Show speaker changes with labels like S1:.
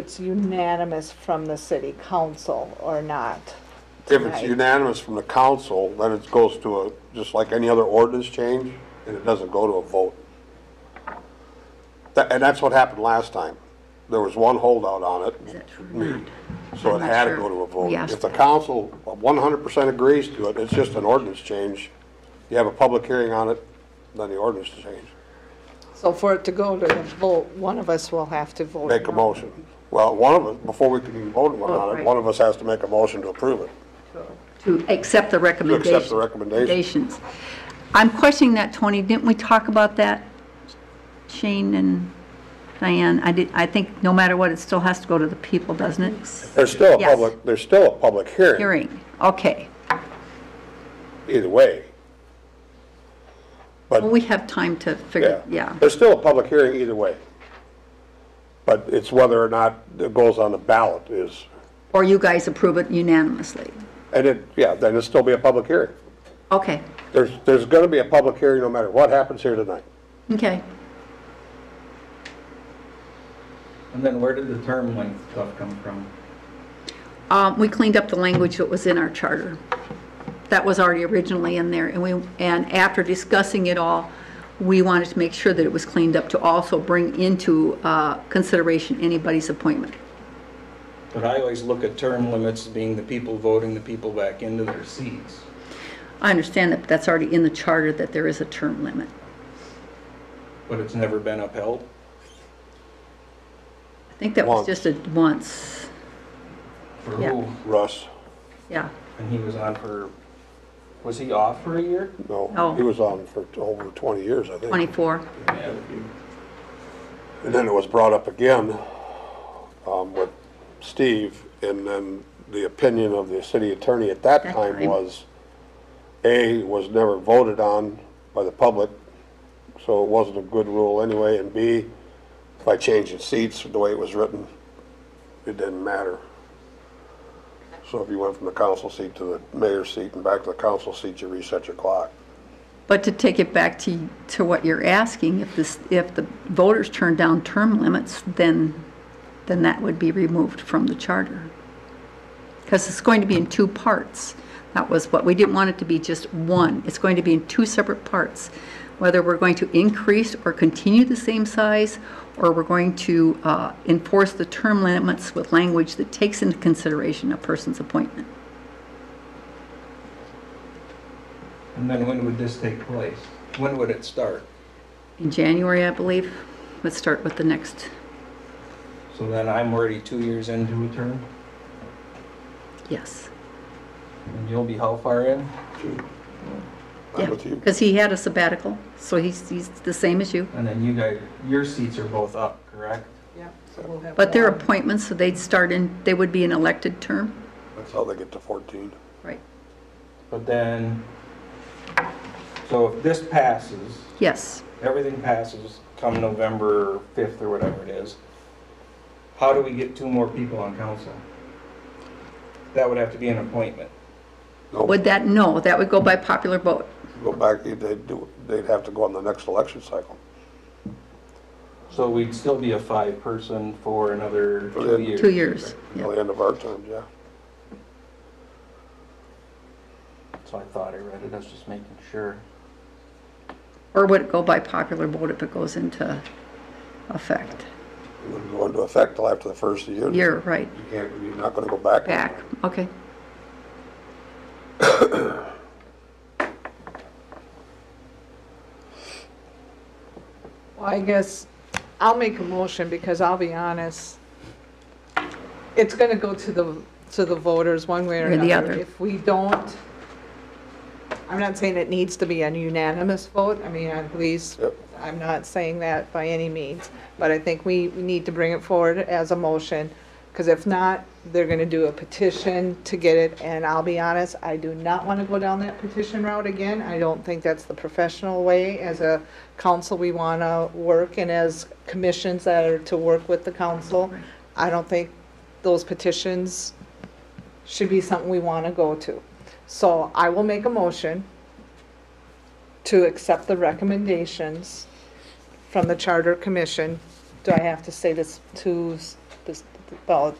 S1: it's unanimous from the city council or not.
S2: If it's
S1: tonight.
S2: unanimous from the council, then it goes to a, just like any other ordinance change, and it doesn't go to a vote. Tha- And that's what happened last time. There was one holdout on
S3: Is
S2: it,
S3: that true or not?
S2: so
S3: I'm
S2: it
S3: not
S2: had to
S3: sure.
S2: go to a vote.
S3: We asked
S2: If the
S3: that.
S2: council one hundred percent agrees to it, it's just an ordinance change. You have a public hearing on it, then the ordinance is changed.
S1: So for it to go to the vote, one of us will have to vote.
S2: Make a
S1: no.
S2: motion. Well, one of us, before we can vote on it,
S3: Oh, right.
S2: one of us has to make a motion to approve it.
S3: To accept the recommendations.
S2: recommendations.
S3: recommendations. I'm questioning that, Tony. Didn't we talk about that, Shane and Diane? I did, I think no matter what, it still has to go to the people, doesn't it?
S2: There's still a
S3: Yes.
S2: public, there's still a public hearing,
S3: Hearing, okay.
S2: either way. But
S3: Well, we have time to figure, yeah.
S2: There's still a public hearing either way. But it's whether or not it goes on the ballot is,
S3: Or you guys approve it unanimously.
S2: and it, yeah, then it'll still be a public hearing.
S3: Okay,
S2: There's, there's gonna be a public hearing no matter what happens here tonight.
S3: okay.
S4: And then where did the term length stuff come from?
S3: Um, We cleaned up the language that was in our charter. That was already originally in there, and we, and after discussing it all, we wanted to make sure that it was cleaned up to also bring into uh, consideration anybody's appointment.
S4: But I always look at term limits as being the people voting the people back into their seats.
S3: I understand that that's already in the charter, that there is a term limit.
S4: But it's never been upheld?
S3: I think that was
S2: Once.
S3: just a once,
S4: For
S3: Yeah.
S4: who?
S2: Russ,
S3: yeah.
S4: And he was on for, was he off for a year?
S2: no,
S3: No.
S2: he was on for over 20 years, I think.
S3: 24,
S4: Yeah.
S2: And then it was brought up again um, with Steve, and then the opinion of the city attorney at that
S3: That
S2: time
S3: time.
S2: was, A, was never voted on by the public, so it wasn't a good rule anyway, and B, by changing seats, the way it was written, it didn't matter. So if you went from the council seat to the mayor's seat and back to the council seat, you reset your clock.
S3: But to take it back to, to what you're asking, if this, if the voters turn down term limits, then, then that would be removed from the charter. Because it's going to be in two parts. That was what, we didn't want it to be just one. It's going to be in two separate parts. Whether we're going to increase or continue the same size, or we're going to uh, enforce the term limits with language that takes into consideration a person's appointment.
S4: And then when would this take place? When would it start?
S3: In January, I believe, let's start with the next
S4: So then I'm already two years into a term?
S3: Yes.
S4: And you'll be how far in?
S2: I'm with you.
S3: Because he had a sabbatical, so he's, he's the same as you.
S4: And then you guys, your seats are both up, correct?
S3: But their appointments, so they'd start in, they would be an elected term.
S2: That's how they get to 14.
S3: Right.
S4: But then, so if this passes,
S3: Yes.
S4: everything passes come November 5th or whatever it is, how do we get two more people on council? That would have to be an appointment.
S2: No.
S3: Would that, no, that would go by popular vote.
S2: go back, they'd do, they'd have to go on the next election cycle.
S4: So we'd still be a five-person for another
S2: Yeah.
S4: two years.
S3: Two years. Yeah.
S2: Till the end of our terms, yeah.
S4: So I thought I read it, I was just making sure.
S3: Or would it go by popular vote if it goes into effect?
S2: It wouldn't go into effect till after the first of the year.
S3: Year, right,
S2: You can't, you're not gonna go back.
S3: back, okay.
S1: Well, I guess I'll make a motion because I'll be honest, it's going to go to the, to the voters one way or
S3: Or
S1: another.
S3: the other.
S1: If we don't, I'm not saying it needs to be a unanimous vote. I mean, I- please,
S2: Yep.
S1: I'm not saying that by any means. But I think we we need to bring it forward as a motion because if not, they're going to do a petition to get it. And I'll be honest, I do not want to go down that petition route again. I don't think that's the professional way. As a council, we want to work, and as commissions that are to work with the council, I don't think those petitions should be something we want to go to. So I will make a motion to accept the recommendations from the Charter Commission. Do I have to say this to s- this- well,